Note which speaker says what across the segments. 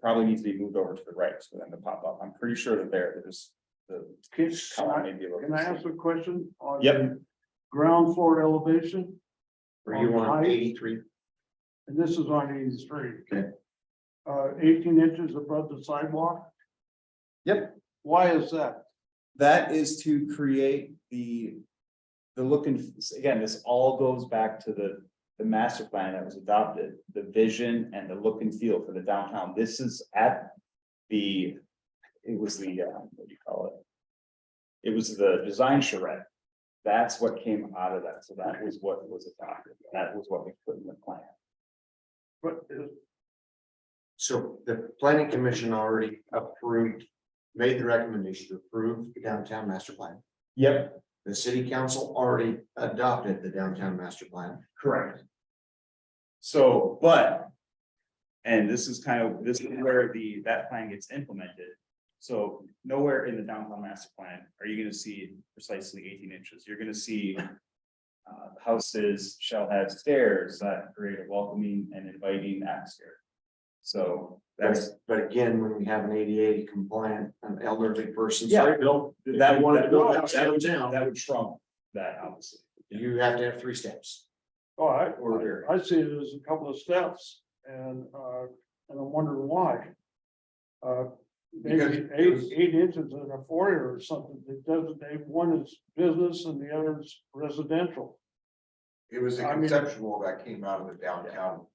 Speaker 1: probably needs to be moved over to the right for them to pop up. I'm pretty sure they're there. They're just the
Speaker 2: Can
Speaker 1: column
Speaker 2: I-
Speaker 1: may be a little.
Speaker 2: can I ask a question? on
Speaker 1: Yep.
Speaker 2: the Ground floor elevation,
Speaker 3: Were you on eighty-three?
Speaker 2: and this is on eighty-three.
Speaker 3: Okay.
Speaker 2: Uh, eighteen inches above the sidewalk?
Speaker 1: Yep.
Speaker 2: Why is that?
Speaker 1: That is to create the, the look and, again, this all goes back to the, the master plan that was adopted, the vision and the look and feel for the downtown. This is at the, it was the, uh, what do you call it? It was the design charrette. That's what came out of that. So that was what was adopted. That was what we put in the plan.
Speaker 2: But uh, is-
Speaker 3: So the planning commission already approved, made the recommendation to approve the downtown master plan.
Speaker 1: Yep,
Speaker 3: The city council already adopted the downtown master plan.
Speaker 1: correct. So, but. And this is kind of, this is where the, that plan gets implemented. So nowhere in the downtown master plan are you gonna see precisely eighteen inches. You're gonna see. Uh, houses shall have stairs that create a welcoming and inviting atmosphere. So that's,
Speaker 3: But again, when we have an ADA compliant, an elderly person.
Speaker 1: Yeah.
Speaker 3: sorry, Bill, if
Speaker 1: That
Speaker 3: you
Speaker 1: one-
Speaker 3: wanna build a house
Speaker 1: that-
Speaker 3: downtown,
Speaker 1: that would trump that obviously.
Speaker 3: You have to have three steps.
Speaker 2: oh, I,
Speaker 1: Or-
Speaker 2: I see it as a couple of steps and, uh, and I'm wondering why. Uh, maybe
Speaker 3: Because-
Speaker 2: eight, eight inches in a foyer or something, it doesn't, they, one is business and the other is residential.
Speaker 4: It was a
Speaker 2: I mean-
Speaker 4: conceptual that came out of the downtown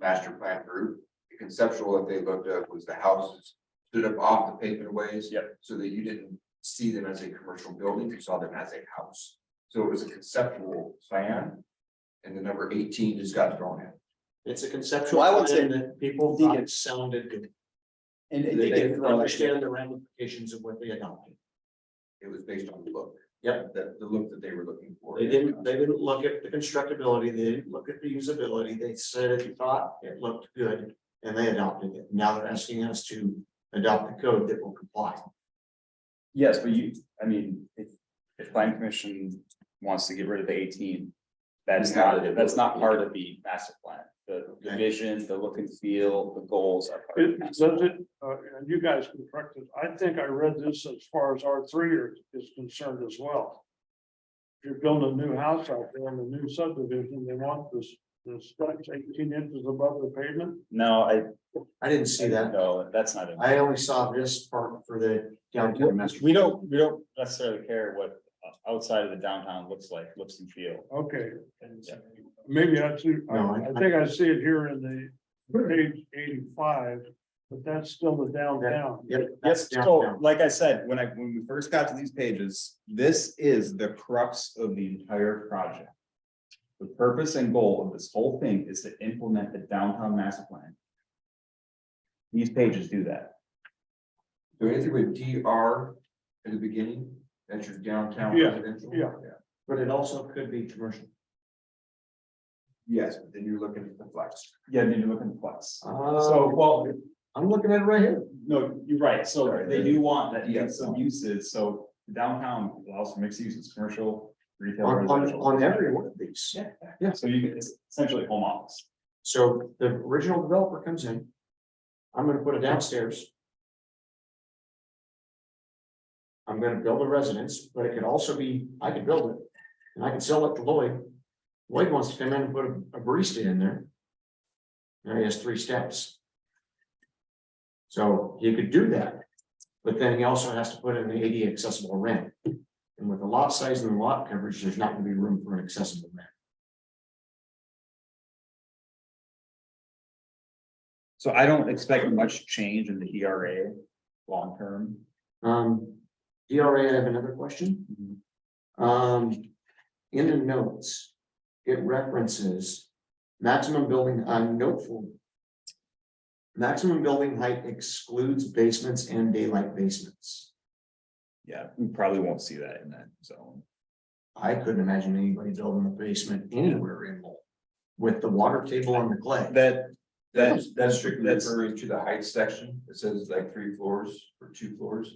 Speaker 4: master plan group. The conceptual that they looked at was the houses stood up off the pavement ways.
Speaker 1: Yep.
Speaker 4: So that you didn't see them as a commercial building, you saw them as a house. So it was a conceptual plan. And the number eighteen just got thrown in.
Speaker 3: It's a conceptual.
Speaker 1: Well, I would say-
Speaker 3: plan that People
Speaker 1: Think
Speaker 3: thought it sounded good.
Speaker 1: And
Speaker 3: They didn't understand the ramifications of what they adopted.
Speaker 4: It was based on the look.
Speaker 3: Yep.
Speaker 4: The, the look that they were looking for.
Speaker 3: They didn't, they didn't look at the constructability, they didn't look at the usability, they said if you thought it looked good, and they adopted it. Now they're asking us to adopt the code that will comply.
Speaker 1: Yes, but you, I mean, if, if planning commission wants to get rid of the eighteen. That's
Speaker 4: We have
Speaker 1: not,
Speaker 4: it.
Speaker 1: that's not part of the master plan, the the
Speaker 3: Okay.
Speaker 1: vision, the look and feel, the goals are. part of
Speaker 2: It
Speaker 1: the
Speaker 2: does
Speaker 1: master plan.
Speaker 2: it, uh, and you guys can correct it. I think I read this as far as R three is concerned as well. If you're building a new house out there in a new subdivision, they want this, this stretch eighteen inches above the pavement.
Speaker 1: No, I,
Speaker 3: I didn't see that.
Speaker 1: no, that's not it.
Speaker 3: I only saw this part for the downtown master.
Speaker 1: We don't, we don't necessarily care what uh, outside of the downtown looks like, looks and feel.
Speaker 2: Okay,
Speaker 1: Yeah.
Speaker 2: maybe I see, I,
Speaker 3: No, I-
Speaker 2: I think I see it here in the page eighty-five, but that's still the downtown.
Speaker 3: Yep, that's
Speaker 1: Yes, so
Speaker 3: downtown.
Speaker 1: like I said, when I, when we first got to these pages, this is the crux of the entire project. The purpose and goal of this whole thing is to implement the downtown master plan. These pages do that.
Speaker 4: So anything with DR at the beginning, that's your downtown
Speaker 2: Yeah,
Speaker 4: residential.
Speaker 2: yeah.
Speaker 3: But it also could be commercial.
Speaker 4: Yes, but then you're looking at the flex.
Speaker 1: Yeah, I mean, you're looking flex. So,
Speaker 3: So
Speaker 1: well,
Speaker 3: Um, I'm looking at it right here.
Speaker 1: no, you're right, so they do want that, you have some uses, so downtown allows for mixed uses, commercial, retail.
Speaker 3: On, on,
Speaker 1: residential.
Speaker 3: on every one of these.
Speaker 1: Yeah, yeah, so you, can- it's essentially home office.
Speaker 3: So the original developer comes in. I'm gonna put it downstairs. I'm gonna build a residence, but it could also be, I could build it and I can sell it to Lloyd. Lloyd wants to come in and put a a barista in there. Now he has three steps. So he could do that, but then he also has to put in the ADA accessible ramp. And with the lot size and the lot coverage, there's not gonna be room for an accessible ramp.
Speaker 1: So I don't expect much change in the ERA long term.
Speaker 3: Um, DRA, I have another question.
Speaker 1: Mhm.
Speaker 2: Mm-hmm.
Speaker 3: Um, in the notes, it references maximum building, I'm noteful. Maximum building height excludes basements and daylight basements.
Speaker 1: Yeah, we probably won't see that in that zone.
Speaker 3: I couldn't imagine anybody building a basement anywhere in Lowell with the water table on the clay.
Speaker 1: That,
Speaker 4: That's, that's strictly
Speaker 1: That's-
Speaker 4: referring to the height section. It says like three floors or two floors.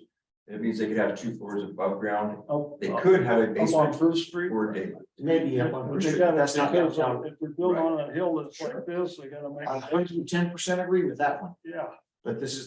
Speaker 4: It means they could have two floors above ground.
Speaker 2: Up-
Speaker 4: They Oh, could have
Speaker 2: Uh,
Speaker 4: a
Speaker 2: Up on
Speaker 4: basement
Speaker 2: First Street.
Speaker 4: or a basement.
Speaker 3: Maybe up on
Speaker 2: But
Speaker 3: First
Speaker 2: they
Speaker 3: Street,
Speaker 2: gotta-
Speaker 3: that's not
Speaker 2: because, uh,
Speaker 3: downtown.
Speaker 2: If they're built on a hill that's like this, they gotta make.
Speaker 3: I hundred and ten percent agree with that one.
Speaker 2: Yeah,
Speaker 3: But this is